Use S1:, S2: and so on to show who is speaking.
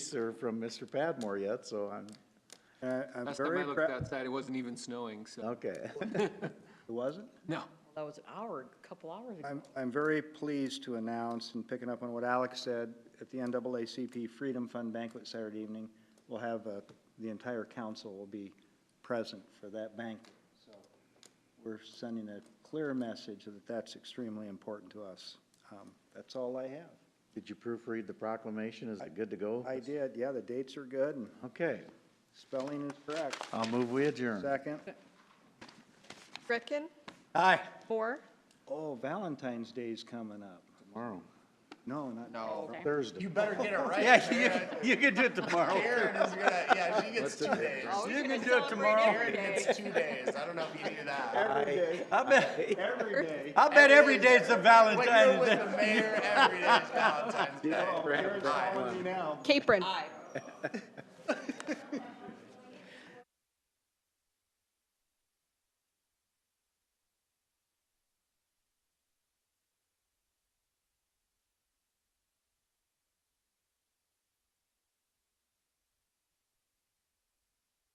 S1: answer from Mr. Padmore yet, so I'm,
S2: Uh, I'm
S3: Last time
S2: very
S3: I looked
S2: proud,
S3: outside, it wasn't even snowing, so,
S1: okay.
S2: it wasn't?
S3: no.
S4: That was an hour, a couple hours ago.
S2: I'm, I'm very pleased to announce, and picking up on what Alex said, at the NAACP Freedom Fund banquet Saturday evening, we'll have, uh, the entire council will be present for that banquet. So We're sending a clear message that that's extremely important to us. Um, That's all I have.
S1: Did you proofread the proclamation? Is it good to go?
S2: I did, yeah, the dates are good, and
S1: Okay,
S2: spelling is correct.
S1: I'll move we adjourn.
S2: Second.
S5: Greckin,
S2: Aye.
S5: Moore,
S2: Oh, Valentine's Day's coming up.
S1: Tomorrow,
S2: No, not.
S3: No.
S1: Thursday.
S6: You better get it right.
S1: Yeah, you, you can do it tomorrow.
S6: Karen is gonna, yeah, she gets two days.
S5: Oh. You can do it tomorrow.
S6: Karen gets two days. I don't know if you knew that.
S2: Every day,
S1: I bet,
S2: every day.
S1: I bet every day's a
S6: When you're
S1: Valentine's
S6: with
S1: Day.
S6: the mayor, every day is Valentine's Day.
S2: Oh, Karen's calling me now.
S5: Capron.